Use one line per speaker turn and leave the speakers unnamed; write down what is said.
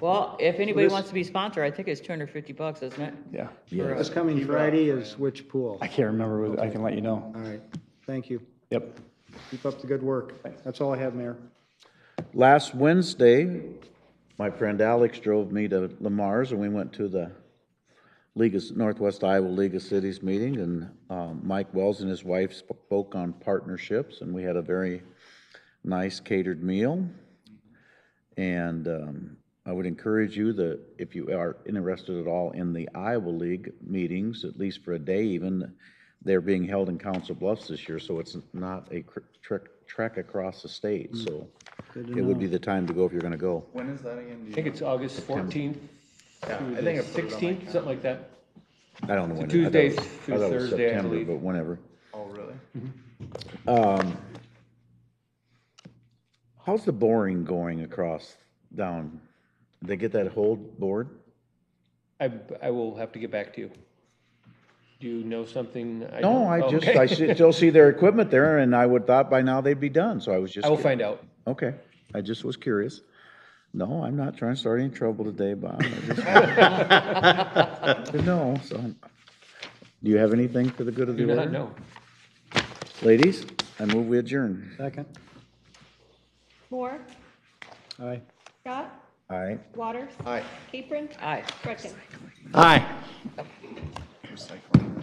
Well, if anybody
This-
wants to be sponsor, I think it's two hundred fifty bucks, isn't it?
Yeah.
For
This
a-
coming Friday is which pool?
I can't remember. what- I can let you know.
All right, thank you.
Yep.
Keep up the good work. That's all I have, Mayor.
Last Wednesday, my friend Alex drove me to Lamar's and we went to the League of, Northwest Iowa League of Cities meeting and um, Mike Wells and his wife spoke on partnerships and we had a very nice catered meal. And um, I would encourage you that if you are interested at all in the Iowa League meetings, at least for a day even, they're being held in Council Bluffs this year, so it's not a cr- trek, trek across the
Hmm.
state, so it would be the time to go if you're gonna go.
When is that again?
I think it's August fourteenth through the sixteenth, something like that.
I don't know when. it- I thought it
Tuesday
was- I
through
thought it was
Thursday, I
September,
believe.
But whenever. Um,
Oh, really?
How's the boring going across down? They get that whole board?
I, I will have to get back to you. Do you know something?
No,
don't?
I
Oh,
just,
okay.
I see- still see their equipment there and I would thought by now they'd be done, so I was just.
I will
cur-
find out.
Okay, I just was curious. No, I'm not trying to start any trouble today, Bob. I just- No, so, do you have anything for the good of the
Do
order?
not know.
Ladies, I move we adjourn.
Second?
Moore,
Aye.
Scott,
All right.
Waters,
Aye.
Capron,
Aye.
Gretkin.
Aye. Recycling.